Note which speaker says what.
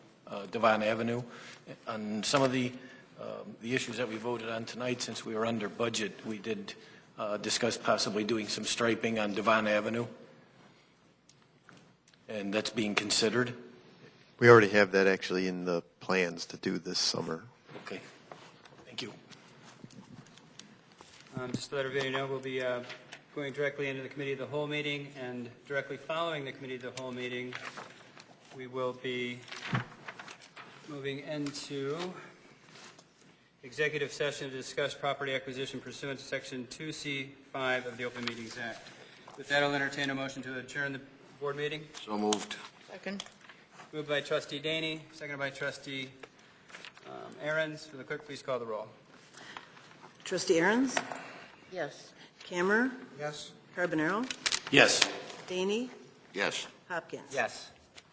Speaker 1: uh, Devon Avenue. On some of the, um, the issues that we voted on tonight, since we were under budget, we did uh, discuss possibly doing some striping on Devon Avenue, and that's being considered.
Speaker 2: We already have that actually in the plans to do this summer.
Speaker 1: Okay, thank you.
Speaker 3: Um, Just to let everybody know, we'll be uh, going directly into the committee of the whole meeting, and directly following the committee of the whole meeting, we will be moving into executive session to discuss property acquisition pursuant to Section 2C5 of the Open Meetings Act. With that, I'll entertain a motion to adjourn the board meeting.
Speaker 4: So moved.
Speaker 5: Second.
Speaker 3: Moved by trustee Daney, seconded by trustee um, Aaron's. Will the clerk please call the roll?
Speaker 6: Trustee Aaron's,
Speaker 5: Yes.
Speaker 6: Cammer,
Speaker 3: Yes.
Speaker 6: Carbonaro,
Speaker 1: Yes.
Speaker 6: Daney,
Speaker 4: Yes.
Speaker 6: Hopkins.
Speaker 3: Yes.